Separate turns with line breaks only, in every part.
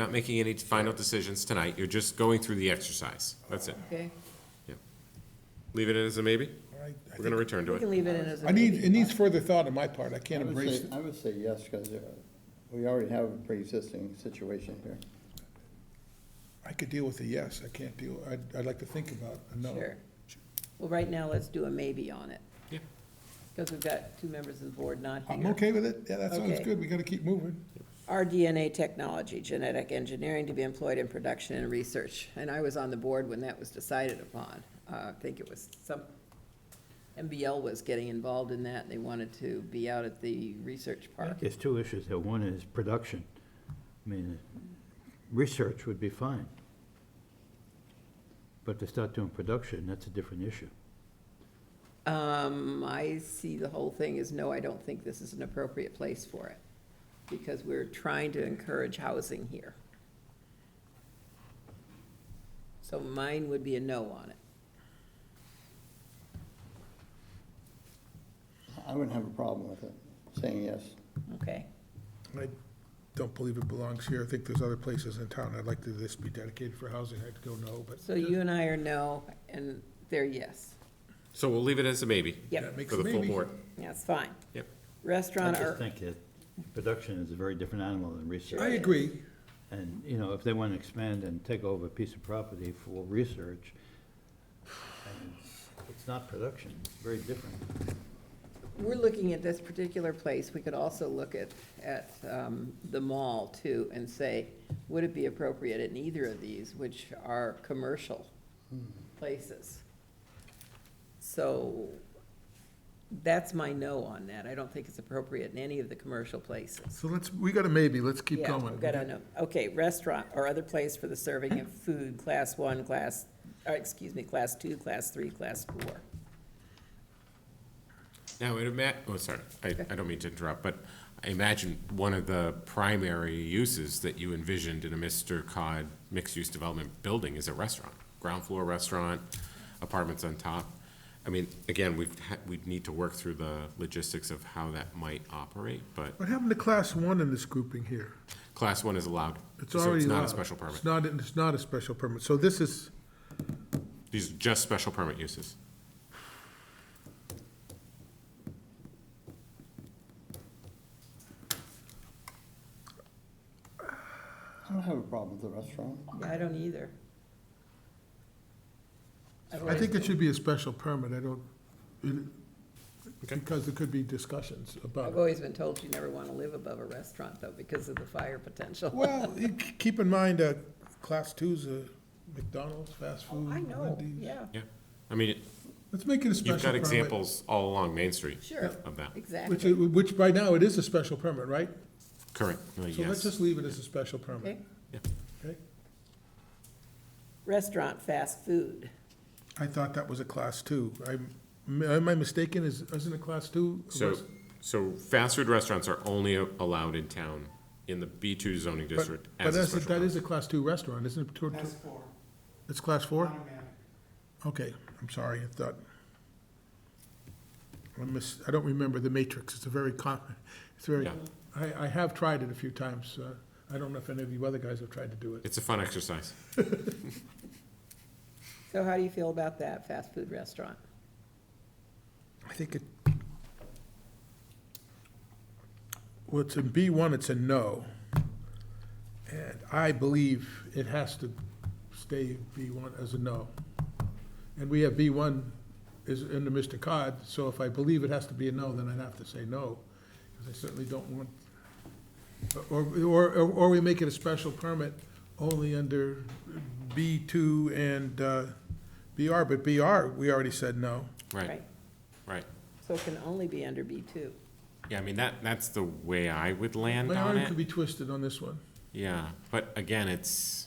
Not making any final decisions tonight, you're just going through the exercise, that's it.
Okay,
Leave it in as a maybe,
All right, I
we're gonna
think-
return to
we
it.
can leave it in as a.
I need, it needs further thought on my part, I can't
I would
embrace
say-
it.
I would say yes, because we already have a pre-existing situation here.
I could deal with a yes, I can't deal, I'd, I'd like to think about a no.
Sure. Well, right now, let's do a maybe on it,
Yeah,
because we've got two members of the board not here.
I'm okay with it, yeah, that sounds
Okay.
good, we gotta keep moving.
RDNA technology, genetic engineering to be employed in production and research. And I was on the board when that was decided upon. Uh, I think it was some, MBL was getting involved in that. They wanted to be out at the research park.
There's two issues here. One is production. I mean, research would be fine. But to start doing production, that's a different issue.
Um, I see the whole thing as, no, I don't think this is an appropriate place for it, because we're trying to encourage housing here. So mine would be a no on it.
I wouldn't have a problem with it, saying yes.
Okay.
I don't believe it belongs here, I think there's other places in town, I'd like to, this be dedicated for housing, I'd go no, but.
So you and I are no, and they're yes.
so we'll leave it as a maybe.
Yep,
Makes
For the full
maybe.
board,
that's fine.
yep.
I
Restaurant
just
or,
think that production is a very different animal than research.
I agree,
And, you know, if they want to expand and take over a piece of property for research, and it's not production, it's very different.
we're looking at this particular place, we could also look at, at, um, the mall too, and say, would it be appropriate in either of these, which are commercial places? So, that's my no on that, I don't think it's appropriate in any of the commercial places.
so let's, we got a maybe, let's keep
Yeah,
going.
we've got a no- okay, restaurant or other place for the serving of food, class one, class, or excuse me, class two, class three, class four.
Now, it ima, oh, sorry, I, I don't mean to interrupt, but I imagine one of the primary uses that you envisioned in a Mr. Cod mixed-use development building is a restaurant, ground floor restaurant, apartments on top. I mean, again, we've, ha- we'd need to work through the logistics of how that might operate, but
What happened to class one in this grouping here?
class one is allowed.
It's
so
already
not a
allowed.
special permit.
It's not, it's not a special permit, so this is,
These are just special permit uses.
I don't have a problem with the restaurant.
Yeah, I don't either. I've
I
always-
think it should be a special permit, I don't, it-
Okay.
because there could be discussions about
I've
it.
always been told you never want to live above a restaurant though because of the fire potential.
Well, you c- keep in mind, uh, class two's a McDonald's, fast food,
I know,
Wendy's.
yeah,
Yeah, I mean,
Let's make it a
you've
special
got
permit.
examples all along Main Street
sure,
of that.
Which,
exactly.
i- which by now, it is a special permit, right?
Correct, Uh,
So let's
yes.
just leave it as a special permit.
Okay.
Yeah.
Okay.
Restaurant, fast food.
I thought that was a class two. I'm, am I mistaken? Is, isn't a class two? a
So,
res-
so fast food restaurants are only allowed in town in the B two zoning
but-
district
But
as a
that's,
special
that is
permit.
a class two restaurant, isn't it? Tor- tor-
That's four,
It's class four?
automatic.
Okay, I'm sorry, I thought. I miss, I don't remember the matrix, it's a very com, it's very,
Yeah.
I, I have tried it a few times, uh, I don't know if any of you other guys have tried to do it.
It's a fun exercise.
So how do you feel about that, fast food restaurant?
I think it. Well, it's in B one, it's a no. And I believe it has to stay B one as a no. And we have B one is under Mr. Cod, so if I believe it has to be a no, then I'd have to say no, because I certainly don't want. Or, or, or we make it a special permit only under B two and, uh, BR, but BR, we already said no.
Right, right.
So it can only be under B two.
Yeah, I mean, that, that's the way I would land
My
on
arm could
it.
be twisted on this one.
Yeah, but again, it's,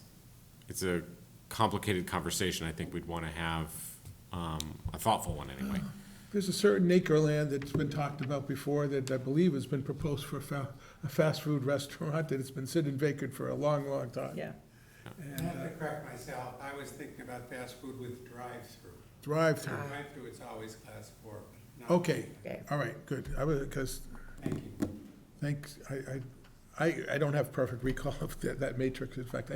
it's a complicated conversation. I think we'd want to have, um, a thoughtful one anyway.
There's a certain acre land that's been talked about before that I believe has been proposed for a fa- a fast food restaurant that has been sitting vacant for a long, long time.
Yeah,
I have to correct myself, I was thinking about fast food with drive-through.
Drive-through.
Drive-through, it's always class four. not-
Okay,
Uh, okay.
all right, good. I was, because,
Thank you.
thanks, I, I, I, I don't have perfect recall of that, that matrix. In fact,